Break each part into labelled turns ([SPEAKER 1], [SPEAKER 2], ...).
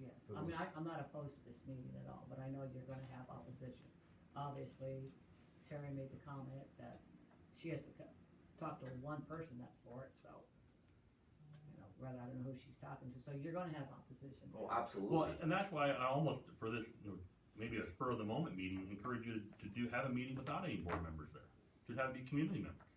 [SPEAKER 1] I mean, I, I'm not opposed to this meeting at all, but I know you're gonna have opposition. Obviously, Terry made the comment that she has to co- talk to one person that's for it, so. You know, rather, I don't know who she's talking to, so you're gonna have opposition.
[SPEAKER 2] Oh,
[SPEAKER 3] Well,
[SPEAKER 2] absolutely.
[SPEAKER 3] and that's why I almost, for this, you know, maybe a spur of the moment meeting, encourage you to do, have a meeting without any board members there. Just have it be community members.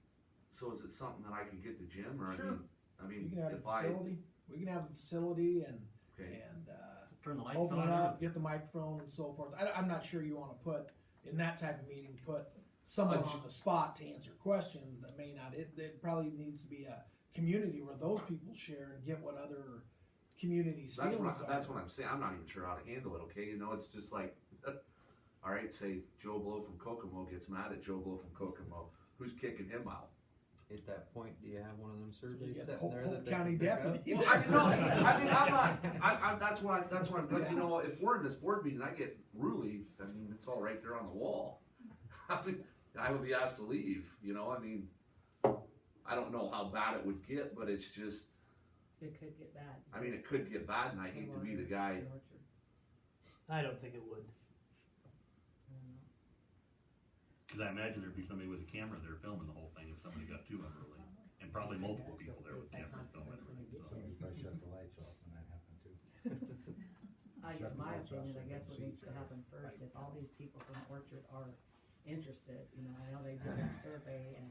[SPEAKER 2] So is it something that I could get the gym or I
[SPEAKER 4] Sure.
[SPEAKER 2] mean, I
[SPEAKER 4] You
[SPEAKER 2] mean,
[SPEAKER 4] can have a
[SPEAKER 2] if I,
[SPEAKER 4] facility, we can have a facility and,
[SPEAKER 2] okay,
[SPEAKER 4] and, uh,
[SPEAKER 3] Turn the lights
[SPEAKER 4] open it up,
[SPEAKER 3] on.
[SPEAKER 4] get the microphone and so forth. I, am not sure you wanna put, in that type of meeting, put someone on the spot to answer questions that may not, it, it probably needs to be a community where those people share and get what other communities'
[SPEAKER 2] that's what,
[SPEAKER 4] feelings
[SPEAKER 2] I-
[SPEAKER 4] are.
[SPEAKER 2] that's what I'm saying, I'm not even sure how to handle it, okay, you know, it's just like, all right, say Joe Blow from Kokomo gets mad at Joe Blow from Kokomo, who's kicking him out?
[SPEAKER 5] At that point, do you have one of them
[SPEAKER 4] You
[SPEAKER 5] surveys
[SPEAKER 4] get the
[SPEAKER 5] sitting
[SPEAKER 4] Hope,
[SPEAKER 5] there that
[SPEAKER 4] Hope
[SPEAKER 5] they can
[SPEAKER 4] County
[SPEAKER 5] pick up?
[SPEAKER 4] deputy.
[SPEAKER 2] Well, I no, I mean, I'm not, I, I, that's why, that's why, but you know, if we're in this board meeting, I get really, I mean, it's all right there on the wall. I mean, I would be asked to leave, you know, I mean, I don't know how bad it would get, but it's just,
[SPEAKER 1] It could get bad.
[SPEAKER 2] I mean, it could get bad, and I hate to be the guy.
[SPEAKER 1] Orchard,
[SPEAKER 6] I don't think it would.
[SPEAKER 1] I don't know.
[SPEAKER 3] Cause I imagine there'd be somebody with a camera there filming the whole thing if somebody got too unruly. And probably multiple people there with cameras filming everything, so.
[SPEAKER 7] Somebody probably shut the lights off when that happened too.
[SPEAKER 1] I,
[SPEAKER 7] Shut the
[SPEAKER 1] my
[SPEAKER 7] lights off
[SPEAKER 1] opinion,
[SPEAKER 7] so
[SPEAKER 1] I
[SPEAKER 7] they
[SPEAKER 1] guess
[SPEAKER 7] can
[SPEAKER 1] what
[SPEAKER 7] see
[SPEAKER 1] needs
[SPEAKER 7] each
[SPEAKER 1] to
[SPEAKER 7] other.
[SPEAKER 1] happen first, if all these people from Orchard are interested, you know, I know they did a survey and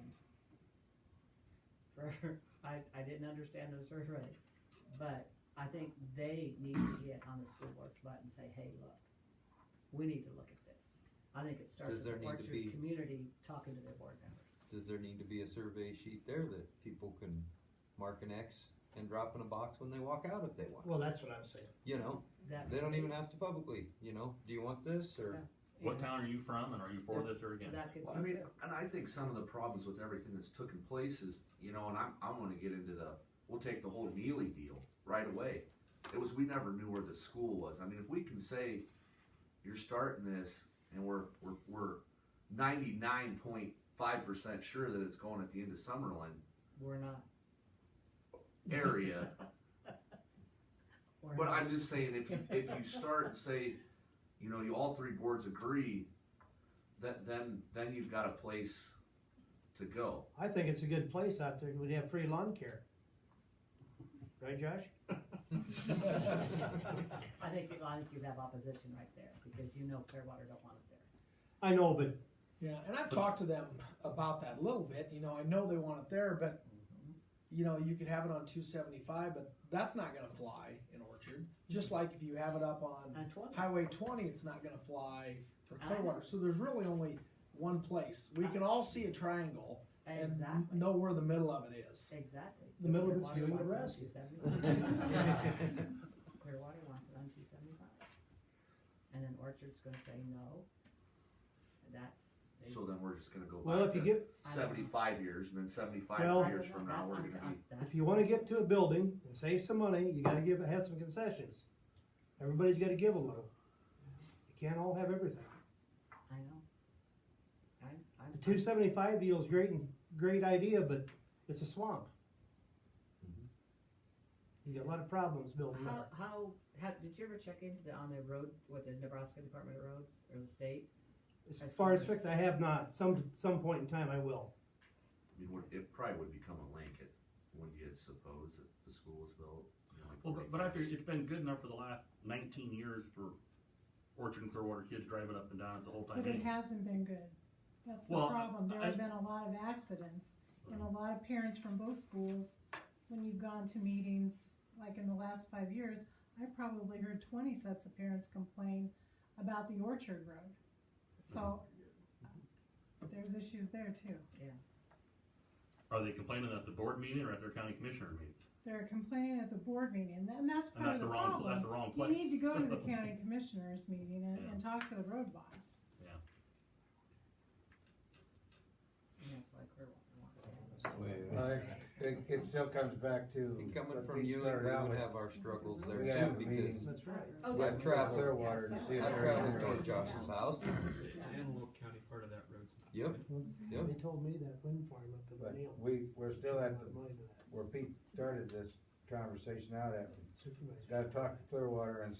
[SPEAKER 1] for, I, I didn't understand the survey, but I think they need to get on the school board's butt and say, hey, look, we need to look at this. I think it starts
[SPEAKER 5] Does there
[SPEAKER 1] with the
[SPEAKER 5] need to be-
[SPEAKER 1] Orchard community talking to their board members.
[SPEAKER 5] Does there need to be a survey sheet there that people can mark an X and drop in a box when they walk out if they want?
[SPEAKER 6] Well, that's what I'm saying.
[SPEAKER 5] You know,
[SPEAKER 1] That,
[SPEAKER 5] they don't even have to publicly, you know, do you want this or?
[SPEAKER 1] you
[SPEAKER 3] What
[SPEAKER 1] know,
[SPEAKER 3] town are you from and are you for this or against?
[SPEAKER 1] that could
[SPEAKER 2] Well, I
[SPEAKER 1] be
[SPEAKER 2] mean, and I think some of the problems with everything that's taken place is, you know, and I'm, I'm gonna get into the, we'll take the whole Neely deal right away. It was, we never knew where the school was. I mean, if we can say, you're starting this and we're, we're, we're ninety-nine point five percent sure that it's going at the end of Summerlin
[SPEAKER 1] We're not.
[SPEAKER 2] area.
[SPEAKER 1] We're
[SPEAKER 2] But
[SPEAKER 1] not.
[SPEAKER 2] I'm just saying, if you, if you start and say, you know, you, all three boards agree, that, then, then you've got a place to go.
[SPEAKER 6] I think it's a good place out there. We'd have free lawn care. Right, Josh?
[SPEAKER 1] I think, you- I think you'd have opposition right there, because you know Clearwater don't want it there.
[SPEAKER 6] I know, but
[SPEAKER 4] Yeah, and I've talked to them about that a little bit. You know, I know they want it there, but you know, you could have it on 275, but that's not going to fly in Orchard. Just like if you have it up on
[SPEAKER 1] On twenty,
[SPEAKER 4] Highway 20, it's not going to fly for
[SPEAKER 1] I know.
[SPEAKER 4] Clearwater. So there's really only one place. We can all see a triangle and
[SPEAKER 1] exactly,
[SPEAKER 4] know where the middle of it is.
[SPEAKER 1] exactly.
[SPEAKER 6] The middle of it's
[SPEAKER 1] Clearwater
[SPEAKER 6] you and the
[SPEAKER 1] wants it on 275. Clearwater wants it on two seventy-five. And then Orchard's gonna say no. And That's. they-
[SPEAKER 2] So then we're just gonna go
[SPEAKER 6] well,
[SPEAKER 2] back
[SPEAKER 6] if you
[SPEAKER 2] to
[SPEAKER 6] get
[SPEAKER 1] I don't know.
[SPEAKER 2] seventy-five years, and then seventy-five
[SPEAKER 6] Well-
[SPEAKER 2] years from
[SPEAKER 1] That's-
[SPEAKER 2] now, we're
[SPEAKER 1] I'm-
[SPEAKER 2] gonna be.
[SPEAKER 1] I'm- that's-
[SPEAKER 6] if you want to get to a building and save some money, you got to give have some concessions. Everybody's got to give a little. You can't all have everything.
[SPEAKER 1] I know. I'm, I'm.
[SPEAKER 6] The 275 deal is great and great idea, but it's a swamp.
[SPEAKER 7] Mm-hmm.
[SPEAKER 6] You got a lot of problems building
[SPEAKER 1] How,
[SPEAKER 6] there.
[SPEAKER 1] how, how, did you ever check into the, on the road with the Nebraska Department of Roads or the state?
[SPEAKER 6] As far as fixed, I have not. Some some point in time, I will.
[SPEAKER 2] I mean, would- it probably would become a blanket, wouldn't you suppose, if the school was built? you know, like
[SPEAKER 3] Well, but, but I figure it's been good enough for the last nineteen years for Orchard and Clearwater kids driving up and down it the whole time.
[SPEAKER 8] But it
[SPEAKER 3] anyway.
[SPEAKER 8] hasn't been good. That's the
[SPEAKER 3] Well,
[SPEAKER 8] problem. There
[SPEAKER 3] I- Mm.
[SPEAKER 8] have been a lot of accidents and a lot of parents from both schools, when you've gone to meetings, like in the last five years, I probably heard twenty sets of parents complain about the Orchard Road. So
[SPEAKER 3] Mm-hmm.
[SPEAKER 8] there's issues there too.
[SPEAKER 3] Are they complaining at the board meeting or at their county commissioner meeting?
[SPEAKER 8] They're complaining at the board meeting and then that's
[SPEAKER 3] And
[SPEAKER 8] part
[SPEAKER 3] that's
[SPEAKER 8] of
[SPEAKER 3] the
[SPEAKER 8] the
[SPEAKER 3] wrong, that's
[SPEAKER 8] problem.
[SPEAKER 3] the wrong
[SPEAKER 8] You
[SPEAKER 3] place.
[SPEAKER 8] need to go to the county commissioners meeting and,
[SPEAKER 3] Yeah.
[SPEAKER 8] and talk to the road boss.
[SPEAKER 1] And that's why Clearwater wants it.
[SPEAKER 7] Well, it, it still comes back to.
[SPEAKER 5] And coming
[SPEAKER 7] what
[SPEAKER 5] from
[SPEAKER 7] we
[SPEAKER 5] you, we
[SPEAKER 7] started out
[SPEAKER 5] would
[SPEAKER 7] with.
[SPEAKER 5] have our struggles there
[SPEAKER 7] We have
[SPEAKER 5] too
[SPEAKER 7] a
[SPEAKER 5] because
[SPEAKER 7] meeting.
[SPEAKER 6] That's right.
[SPEAKER 1] Oh, yeah.
[SPEAKER 5] I've traveled-
[SPEAKER 7] Clearwater to see if
[SPEAKER 5] I
[SPEAKER 7] they're
[SPEAKER 5] traveled
[SPEAKER 7] doing
[SPEAKER 5] toward
[SPEAKER 7] it.
[SPEAKER 5] Josh's house.
[SPEAKER 9] The Antelope County part of that road's not.
[SPEAKER 5] Yep.
[SPEAKER 9] good.
[SPEAKER 5] Yep.
[SPEAKER 6] They told me that wind farm up in
[SPEAKER 7] But
[SPEAKER 6] Neal.
[SPEAKER 7] we, we're still at the,
[SPEAKER 6] Mine to that
[SPEAKER 7] where Pete started this conversation out at,
[SPEAKER 6] supervisor.
[SPEAKER 7] gotta talk to Clearwater and